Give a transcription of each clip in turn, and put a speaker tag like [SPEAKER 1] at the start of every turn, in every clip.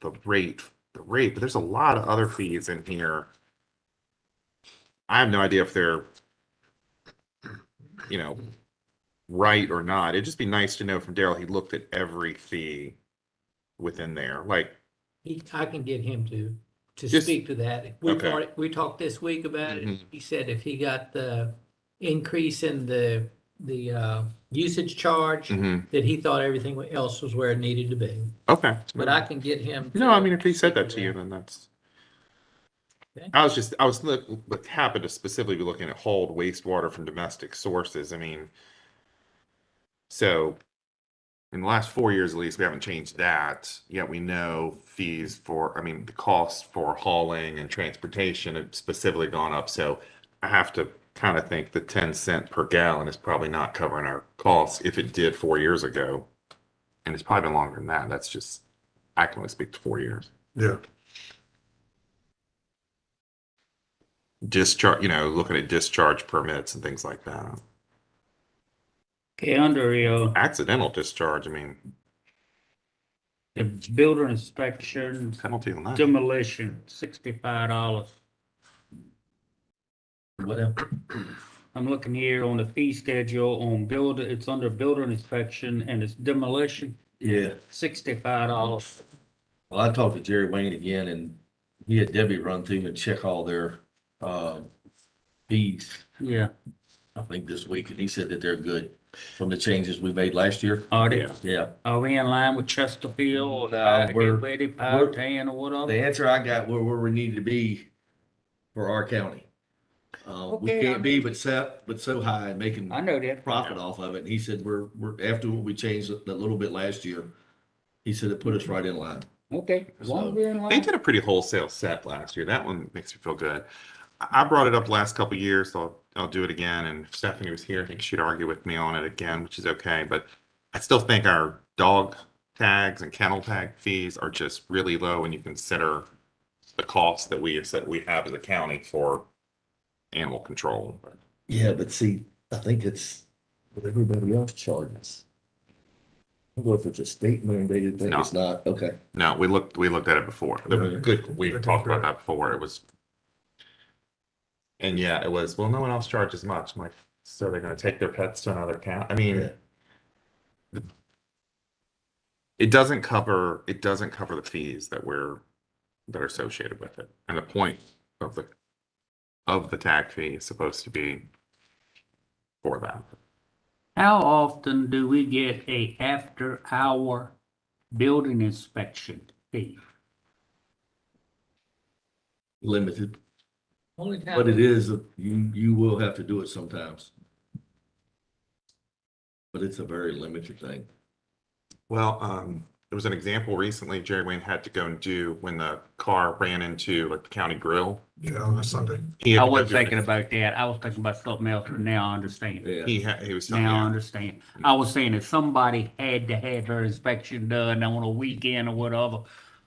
[SPEAKER 1] the rate, the rate, but there's a lot of other fees in here. I have no idea if they're, you know, right or not. It'd just be nice to know from Daryl, he looked at every fee within there, like,
[SPEAKER 2] He, I can get him to, to
[SPEAKER 1] Just-
[SPEAKER 2] speak to that. We
[SPEAKER 1] Okay.
[SPEAKER 2] already, we talked this week about it.
[SPEAKER 1] Mhm.
[SPEAKER 2] He said if he got the increase in the, the, uh, usage charge,
[SPEAKER 1] mhm,
[SPEAKER 2] that he thought everything else was where it needed to be.
[SPEAKER 1] okay.
[SPEAKER 2] But I can get him.
[SPEAKER 1] Mm-hmm. No,
[SPEAKER 2] to-
[SPEAKER 1] I mean, if he said that to you, then that's.
[SPEAKER 2] Okay.
[SPEAKER 1] I was just, I was look, look- happened to specifically be looking at hauled wastewater from domestic sources. I mean. So. In the last four years at least, we haven't changed that, yet we know fees for, I mean, the cost for hauling and transportation have specifically gone up, so. I have to kind of think the ten cent per gallon is probably not covering our costs if it did four years ago. And it's probably been longer than that. That's just, I can only speak to four years.
[SPEAKER 3] Yeah,
[SPEAKER 1] Discharge, you know, looking at discharge permits and things like that.
[SPEAKER 4] Okay, under uh,
[SPEAKER 1] Accidental discharge, I mean,
[SPEAKER 4] the builder inspection,
[SPEAKER 1] penalty on that.
[SPEAKER 4] demolition, sixty-five dollars. Whatever. I'm looking here on the fee schedule on builder, it's under builder inspection and it's demolition,
[SPEAKER 5] Yeah,
[SPEAKER 4] sixty-five dollars.
[SPEAKER 5] well, I talked to Jerry Wayne again and he had Debbie run through and check all their, uh, fees,
[SPEAKER 4] Yeah,
[SPEAKER 5] I think this week, and he said that they're good from the changes we made last year.
[SPEAKER 4] are they,
[SPEAKER 1] Yeah,
[SPEAKER 5] Yeah,
[SPEAKER 4] are we in line with Chesterfield
[SPEAKER 5] No,
[SPEAKER 4] or Power
[SPEAKER 5] we're-
[SPEAKER 4] Gateway,
[SPEAKER 5] we're-
[SPEAKER 4] Power Tan or
[SPEAKER 5] the
[SPEAKER 4] whatever?
[SPEAKER 5] answer I got were where we need to be for our county. Uh, we
[SPEAKER 4] Okay, I
[SPEAKER 5] can't be but set, but so high and making
[SPEAKER 4] I know that.
[SPEAKER 5] profit off of it. And he said, we're, we're, after what we changed a a little bit last year, he said it put us right in line.
[SPEAKER 4] Okay, as long as we're in
[SPEAKER 1] they
[SPEAKER 4] line.
[SPEAKER 1] did a pretty wholesale set last year. That one makes me feel good. I I brought it up last couple of years, so I'll- I'll do it again. And if Stephanie was here, I think she'd argue with me on it again, which is okay. But I still think our dog tags and kennel tag fees are just really low when you consider the cost that we, that we have as a county for animal control.
[SPEAKER 5] Yeah, but see, I think it's what everybody else charges. I don't know if it's a state mandated thing,
[SPEAKER 1] No.
[SPEAKER 5] it's not, okay.
[SPEAKER 1] No, we looked, we looked at it before. The-
[SPEAKER 5] Right.
[SPEAKER 1] Good, we
[SPEAKER 3] Okay,
[SPEAKER 1] talked about
[SPEAKER 3] fair.
[SPEAKER 1] that before. It was. And yeah, it was, well, no one else charges much. I'm like, so they're gonna take their pets to another county. I mean.
[SPEAKER 5] Yeah.
[SPEAKER 1] It doesn't cover, it doesn't cover the fees that we're, that are associated with it. And the point of the, of the tag fee is supposed to be for that.
[SPEAKER 4] How often do we get a after-hour building inspection fee?
[SPEAKER 5] Limited,
[SPEAKER 2] Only time-
[SPEAKER 5] but it is, you, you will have to do it sometimes. But it's a very limited thing.
[SPEAKER 1] Well, um, there was an example recently Jerry Wayne had to go and do when the car ran into like the county grill.
[SPEAKER 3] yeah, on a Sunday.
[SPEAKER 1] He had
[SPEAKER 4] I
[SPEAKER 1] to go
[SPEAKER 4] wasn't
[SPEAKER 1] do an
[SPEAKER 4] thinking about that. I was thinking about something else, but now I understand.
[SPEAKER 5] Yeah,
[SPEAKER 1] He had, he was telling
[SPEAKER 4] Now I
[SPEAKER 1] me,
[SPEAKER 4] understand. I was saying if somebody had to have their inspection done on a weekend or whatever,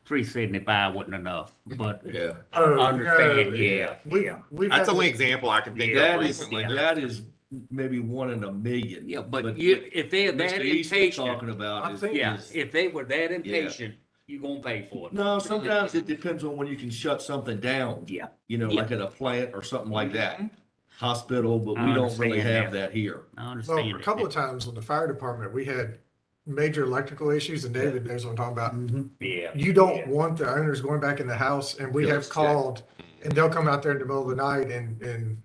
[SPEAKER 4] three seventy-five wasn't enough, but
[SPEAKER 5] yeah.
[SPEAKER 3] Oh,
[SPEAKER 4] understand, yeah.
[SPEAKER 3] We, we.
[SPEAKER 1] that's the only example I can think of
[SPEAKER 5] That is,
[SPEAKER 1] recently.
[SPEAKER 5] that is maybe one in a million.
[SPEAKER 4] Yeah, but you, if they're
[SPEAKER 5] Mr.
[SPEAKER 4] that
[SPEAKER 5] Easton's
[SPEAKER 4] impatient,
[SPEAKER 5] talking about
[SPEAKER 3] I
[SPEAKER 5] is.
[SPEAKER 3] think-
[SPEAKER 4] yeah,
[SPEAKER 5] is-
[SPEAKER 4] if they were that
[SPEAKER 5] Yeah.
[SPEAKER 4] impatient, you gonna pay for it.
[SPEAKER 5] No, sometimes it depends on when you can shut something down.
[SPEAKER 4] Yeah.
[SPEAKER 5] You know,
[SPEAKER 4] Yeah.
[SPEAKER 5] like
[SPEAKER 4] Mm-hmm.
[SPEAKER 5] at a plant or something like that, hospital, but
[SPEAKER 4] I
[SPEAKER 5] we don't really
[SPEAKER 4] understand
[SPEAKER 5] have that here.
[SPEAKER 4] I
[SPEAKER 3] Well,
[SPEAKER 4] understand.
[SPEAKER 3] a couple of times with the fire department, we had major electrical issues and David knows what I'm talking about.
[SPEAKER 4] Yeah.
[SPEAKER 3] You don't want the owners going back in the house and we have
[SPEAKER 5] Yes, yeah.
[SPEAKER 3] called and they'll come out there in the middle of the night and, and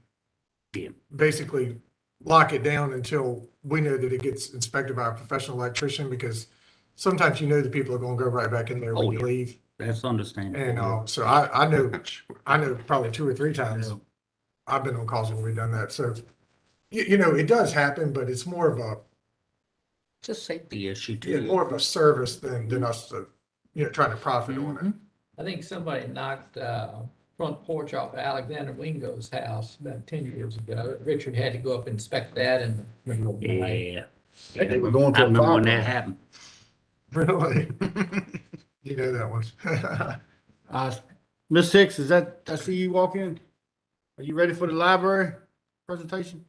[SPEAKER 4] Yeah.
[SPEAKER 3] basically lock it down until we know that it gets inspected by a professional electrician because sometimes you know the people are gonna go right back in there
[SPEAKER 4] Oh,
[SPEAKER 3] when you
[SPEAKER 4] yeah.
[SPEAKER 3] leave.
[SPEAKER 4] That's
[SPEAKER 3] And,
[SPEAKER 4] understandable.
[SPEAKER 3] uh, so I, I know, I know probably two or three times
[SPEAKER 4] Yeah.
[SPEAKER 3] I've been on calls when we've done that, so, you, you know, it does happen, but it's more of a,
[SPEAKER 4] It's a safety issue
[SPEAKER 3] yeah,
[SPEAKER 4] too.
[SPEAKER 3] more of a service than, than us to, you know, trying to profit on it.
[SPEAKER 2] I think somebody knocked, uh, front porch off Alexander Wingo's house about ten years ago. Richard had to go up and inspect that and.
[SPEAKER 4] Yeah.
[SPEAKER 6] They were going
[SPEAKER 4] I
[SPEAKER 6] to a
[SPEAKER 4] remember when that
[SPEAKER 6] fire.
[SPEAKER 4] happened.
[SPEAKER 3] Really? You know that one.
[SPEAKER 6] Uh, Ms. Hicks, is that, I see you walk in. Are you ready for the library presentation?